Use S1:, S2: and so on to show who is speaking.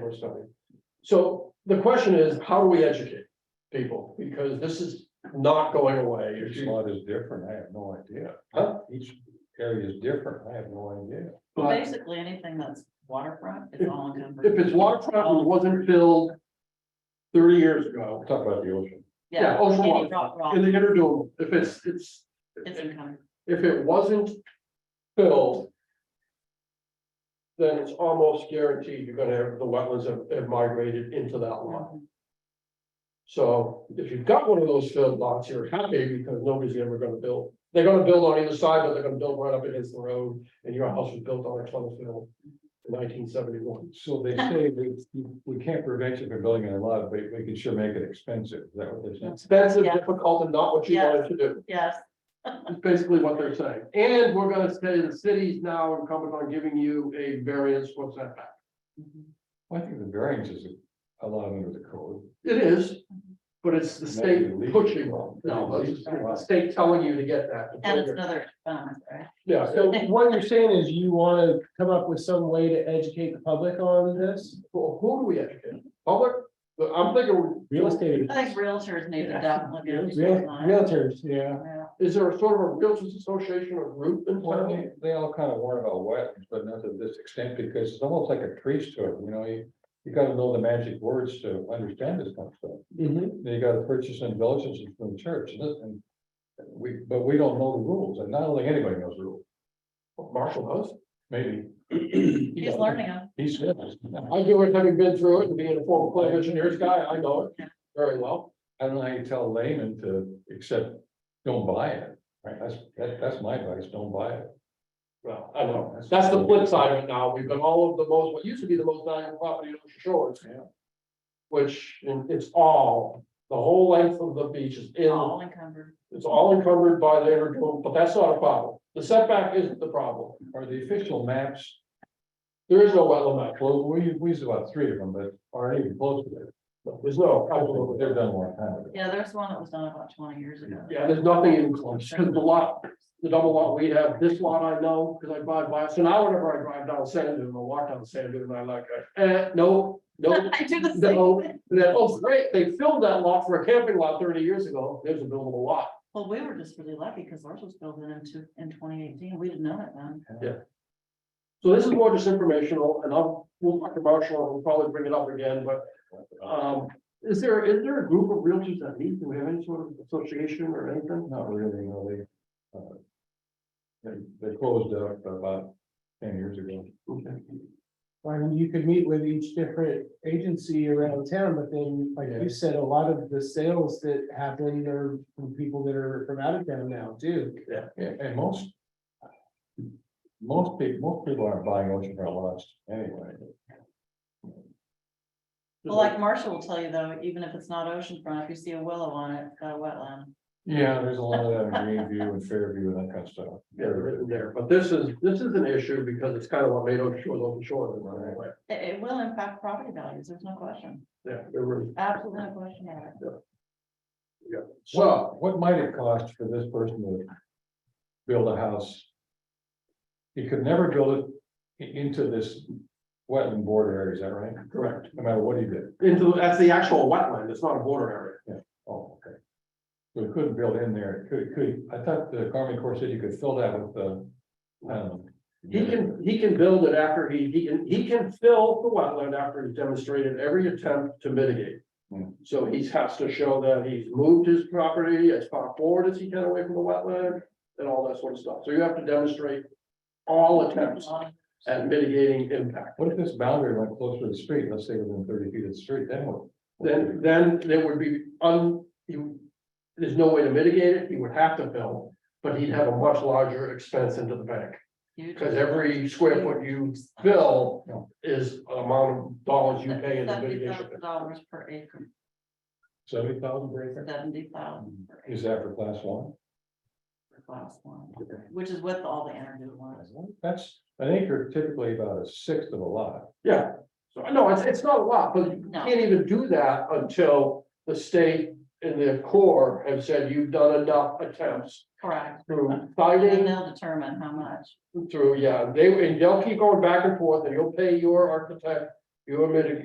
S1: we're starting. So the question is, how do we educate people? Because this is not going away. If
S2: Each
S1: you-
S2: lot is different, I have no idea.
S1: Huh?
S2: Each area is different, I have no idea.
S3: Well,
S1: But
S3: basically, anything that's waterfront is all encumbered.
S1: If it's waterfront and wasn't filled thirty years ago,
S2: Talk about the ocean.
S1: yeah, ocean
S3: any
S1: water.
S3: rock- rock,
S1: in the interdoom, if it's, it's,
S3: It's encumbered.
S1: if it wasn't filled, then it's almost guaranteed you're gonna have, the wetlands have- have migrated into that lot. So if you've got one of those filled lots, you're happy because nobody's ever gonna build. They're gonna build on either side, but they're gonna build right up against the road and your house was built on a tunnel fill in nineteen seventy-one.
S2: So they say we, we can't prevent you from building in a lot, but we can sure make it expensive, is that what they said?
S1: Expensive,
S3: Yeah.
S1: difficult, and not what you
S3: Yes.
S1: wanted to do.
S3: Yes,
S1: That's basically what they're saying. And we're gonna say the city's now incumbent on giving you a variance, what's that? Mhm.
S2: Well, I think the variance is allowed under the code.
S1: It is, but it's the state
S2: Maybe legal.
S1: pushing on, no, it's the state telling you to get that. to
S3: and
S1: put
S3: it's
S1: your-
S3: another expense, right?
S1: Yeah,
S4: So what you're saying is you wanna come up with some way to educate the public on this?
S1: Well, who do we educate? Public, I'm thinking.
S4: Real estate.
S3: I think realtors need to
S4: Yeah.
S3: definitely. be
S4: Real-
S3: on the line.
S4: Realtors, yeah.
S3: Yeah.
S1: Is there a sort of a realtors association or group in
S2: Well,
S1: town?
S2: they, they all kind of warn about wetlands, but not to this extent, because it's almost like a tree store, you know, you, you gotta know the magic words to understand this kind of stuff.
S4: Mhm.
S2: They gotta purchase indulgences from the church, and, this- and we, but we don't know the rules, and not only anybody knows the rules,
S1: Marshall House?
S2: maybe.
S3: He's learning them.
S2: He's.
S1: I do it, having been through it and being a former plant engineers guy, I know it very well.
S2: I don't know how you tell laymen to accept, don't buy it, right? That's, that, that's my advice, don't buy it.
S1: Well, I know, that's the flip side of it now, we've got all of the most, what used to be the most valuable property on the shores.
S2: Yeah.
S1: Which, and it's all, the whole length of the beach is in,
S3: all encumbered.
S1: it's all encumbered by the intergoal, but that's not a problem, the setback isn't the problem,
S2: Are the official maps,
S1: there is no wetland map,
S2: close, we, we used about three of them, but aren't even close to that.
S1: No, there's no, absolutely,
S2: They're done a long time ago.
S3: Yeah, there's one that was done about twenty years ago.
S1: yeah, there's nothing even close, because the lot the double lot we have, this lot I know, because I drive by, so now whenever I drive down Sand Dune, I walk down Sand Dune, I like, eh, no, no.
S3: I do the
S1: No,
S3: same. thing.
S1: and then, oh, great, they filled that lot for a camping lot thirty years ago, there's a buildable lot,
S3: Well, we were just really lucky because ours was built in two, in twenty eighteen. We didn't know it then.
S1: so this is more just informational, and I'll, we'll talk to Marshall, and we'll probably bring it up again, but. Um, is there, is there a group of realtors that meet, do we have any sort of association or anything?
S2: Not really, no, they, uh, they, they closed up about ten years ago.
S1: Okay.
S4: I mean, you could meet with each different agency around town, but then, like
S2: Yeah.
S4: you said, a lot of the sales that happen are from people that are from out of town now too.
S2: Yeah, and most. Most people, most people aren't buying oceanfront lots anyway.
S3: Well, like Marshall will tell you though, even if it's not oceanfront, if you see a willow on it, it's got a wetland.
S2: Yeah, there's a lot of that in Greenview and Fairview and that kind of stuff.
S1: Yeah, written there, but this is, this is an issue, because it's kind of what made Ocean Shores, Ocean Shores, in my way,
S3: It, it will impact property values. There's no question.
S1: yeah, there were,
S3: Absolutely no question about it.
S1: so.
S2: Well, what might it cost for this person to build a house? He could never build it i- into this wetland border area, is that right?
S1: Correct.
S2: No matter what he did.
S1: Into, that's the actual wetland, it's not a border area.
S2: Oh, okay. So he couldn't build in there. Could, could, I thought the Army Corps said you could fill that with the. um,
S1: He can, he can build it after he, he can, he can fill the wetland after he's demonstrated every attempt to mitigate.
S2: Hmm.
S1: So he has to show that he's moved his property as far forward as he can away from the wetland and all that sort of stuff. So you have to demonstrate all attempts at mitigating impact.
S2: What if this boundary went closer to the street, let's say within thirty feet of the street, then what?
S1: Then, then there would be un, you, there's no way to mitigate it. He would have to fill, but he'd have a much larger expense into the bank.
S3: Huge.
S1: Because every square foot you fill
S2: Yeah.
S1: is an amount of dollars you pay in the
S3: Seventy
S1: mitigation.
S3: thousand dollars per acre,
S2: Seventy thousand per acre?
S3: seventy thousand per acre
S2: Is that for class one?
S3: for class one, which is with all the energy ones.
S2: That's an acre typically about a sixth of a lot.
S1: Yeah, so I know it's, it's not a lot, but you
S3: No.
S1: can't even do that until the state and the Corps have said you've done enough attempts
S3: Correct.
S1: through
S3: And then
S1: fighting,
S3: they'll determine how much.
S1: through, yeah, they, and they'll keep going back and forth and you'll pay your architect, your mitigation